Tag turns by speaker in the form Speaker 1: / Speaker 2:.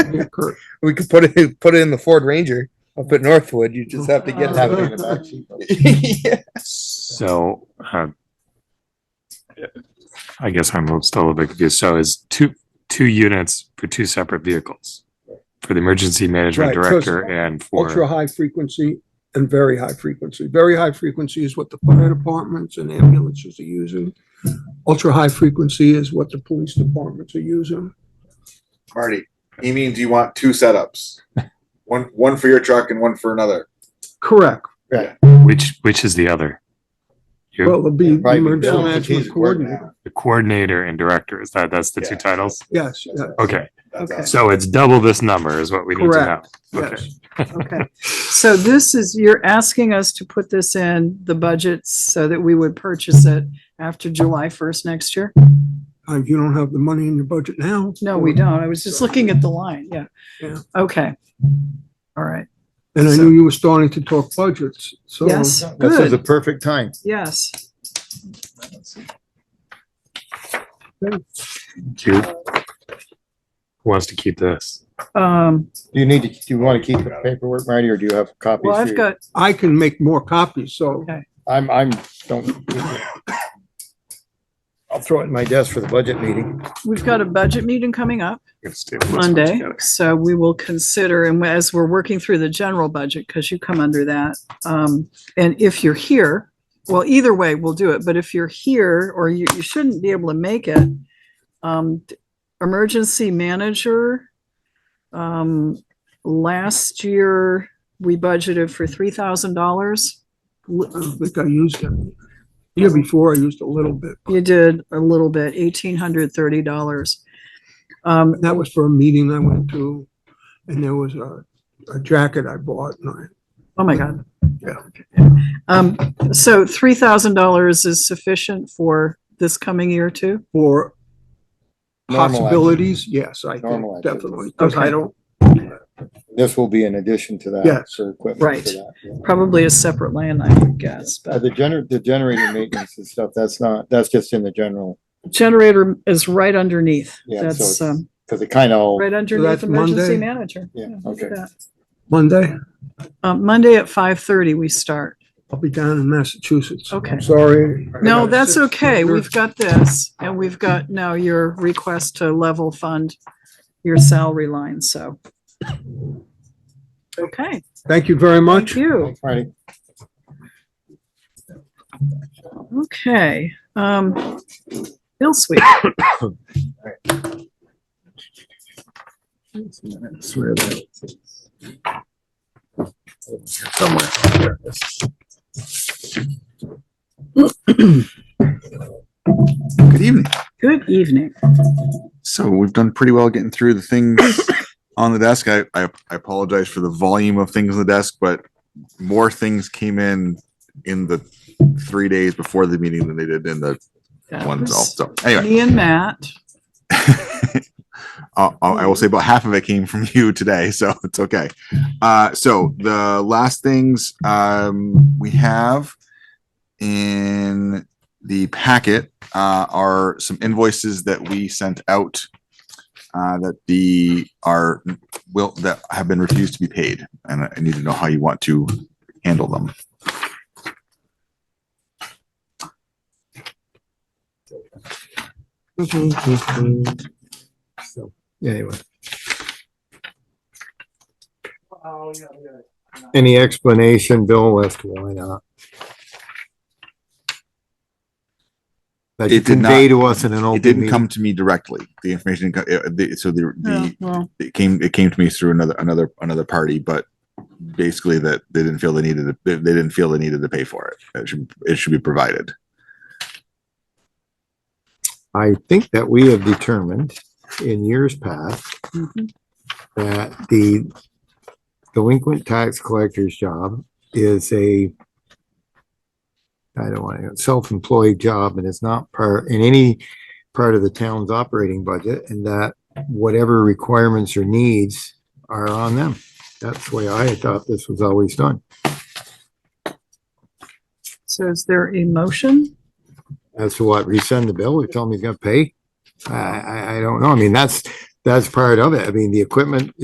Speaker 1: We could put it put it in the Ford Ranger up at Northwood. You just have to get
Speaker 2: Have
Speaker 1: to
Speaker 2: it.
Speaker 1: it. yeah.
Speaker 3: So, uh, I guess I'm still a little bit confused. So is two, two units for two separate vehicles? For the emergency management
Speaker 2: Right, so it's
Speaker 3: director and
Speaker 2: Ultra
Speaker 3: for,
Speaker 2: high frequency and very high frequency. Very high frequency is what the fire departments and ambulances are using. Ultra high frequency is what the police departments are using.
Speaker 4: Marty, he means you want two setups. One, one for your truck and one for another.
Speaker 2: Correct.
Speaker 3: which, which is the other?
Speaker 2: Well, it'll be
Speaker 4: Right,
Speaker 2: emergency
Speaker 4: yeah.
Speaker 2: management coordinator.
Speaker 3: The coordinator and director, is that, that's the two
Speaker 4: Yeah.
Speaker 3: titles?
Speaker 2: Yes, yeah,
Speaker 3: Okay,
Speaker 4: That's
Speaker 5: Okay.
Speaker 4: us.
Speaker 3: so it's double this number is what we need to know.
Speaker 2: Correct.
Speaker 3: Okay,
Speaker 2: yes.
Speaker 5: Okay, so this is, you're asking us to put this in the budget so that we would purchase it after July first next year?
Speaker 2: Uh, you don't have the money in your budget now.
Speaker 5: No, we don't. I was just looking at the line, yeah.
Speaker 2: Yeah.
Speaker 5: Okay. All right,
Speaker 2: And I knew you were starting to talk budgets, so.
Speaker 5: yes,
Speaker 6: This is the
Speaker 5: good,
Speaker 6: perfect time.
Speaker 5: yes.
Speaker 3: Cute. Who wants to keep this?
Speaker 5: Um,
Speaker 6: Do you need to, do you want to keep the paperwork, Marty, or do you have copies?
Speaker 5: well, I've
Speaker 6: here?
Speaker 5: got,
Speaker 2: I can make more copies, so uh,
Speaker 5: Okay.
Speaker 6: I'm, I'm, don't. I'll throw it in my desk for the budget meeting.
Speaker 5: we've got a budget meeting coming up
Speaker 3: Let's table this one
Speaker 5: Monday,
Speaker 3: together.
Speaker 5: so we will consider, and as we're working through the general budget, because you come under that, um, and if you're here, well, either way, we'll do it, but if you're here, or you, you shouldn't be able to make it, um, emergency manager, um, last year, we budgeted for three thousand dollars.
Speaker 2: I don't think I used them. Year before, I used a little bit.
Speaker 5: You did a little bit, eighteen hundred thirty dollars. Um,
Speaker 2: That was for a meeting I went to, and there was a, a jacket I bought, and I
Speaker 5: Oh, my God.
Speaker 2: Yeah.
Speaker 5: Um, so three thousand dollars is sufficient for this coming year too?
Speaker 2: For
Speaker 6: Normal
Speaker 2: possibilities, yes, I
Speaker 6: Normal
Speaker 2: think,
Speaker 6: activity.
Speaker 2: definitely, because I
Speaker 5: Okay.
Speaker 2: don't,
Speaker 6: This will be in addition to that.
Speaker 2: Yes.
Speaker 6: For equipment
Speaker 5: Right.
Speaker 6: for that. yeah.
Speaker 5: Probably a separate line, I would guess,
Speaker 6: Uh,
Speaker 5: but
Speaker 6: The gener, the generator maintenance and stuff, that's not, that's just in the general,
Speaker 5: generator is right underneath.
Speaker 6: Yeah,
Speaker 5: That's,
Speaker 6: so it's-
Speaker 5: um,
Speaker 6: because it kind of,
Speaker 5: right underneath
Speaker 2: that's
Speaker 5: emergency
Speaker 2: Monday?
Speaker 5: manager.
Speaker 6: Yeah,
Speaker 5: look at
Speaker 6: okay.
Speaker 5: that.
Speaker 2: Monday,
Speaker 5: Um, Monday at five thirty, we start.
Speaker 2: I'll be down in Massachusetts.
Speaker 5: Okay.
Speaker 2: I'm Sorry.
Speaker 5: No, that's okay. We've got this and we've got now your request to level fund your salary line, so. Okay,
Speaker 2: Thank you very
Speaker 5: thank
Speaker 2: much.
Speaker 5: you.
Speaker 6: Marty,
Speaker 5: Okay, um, Bill Sweet.
Speaker 7: Good evening.
Speaker 5: Good evening.
Speaker 7: So we've done pretty well getting through the things on the desk. I, I I apologize for the volume of things on the desk, but more things came in in the three days before the meeting than they did in the
Speaker 5: That
Speaker 7: one itself.
Speaker 5: was
Speaker 7: So anyway,
Speaker 5: Me and Matt.
Speaker 7: I'll- I'll- Uh, I will say about half of it came from you today, so it's okay. Uh, so the last things um, we have in the packet uh, are some invoices that we sent out uh, that the are will that have been refused to be paid, and I need to know how you want to handle them.
Speaker 6: So, anyway. Any explanation, Bill, as to why not? That you
Speaker 7: It did not-
Speaker 6: convey to us in an open
Speaker 7: It
Speaker 6: meeting.
Speaker 7: didn't come to me directly. The information, co- uh, the- so the,
Speaker 5: Oh,
Speaker 7: the
Speaker 5: well,
Speaker 7: it came it came to me through another another another party, but basically that they didn't feel they needed to, they they didn't feel they needed to pay for it. It should it should be provided.
Speaker 6: I think that we have determined in years past
Speaker 5: mhm.
Speaker 6: that the delinquent tax collector's job is a I don't want to, self-employed job and it's not part, in any part of the town's operating budget and that whatever requirements or needs are on them. That's the way I had thought this was always done.
Speaker 5: So is there a motion?
Speaker 6: As to what, resend the bill or tell him he's gonna pay? I, I, I don't know. I mean, that's, that's part of it. I mean, the equipment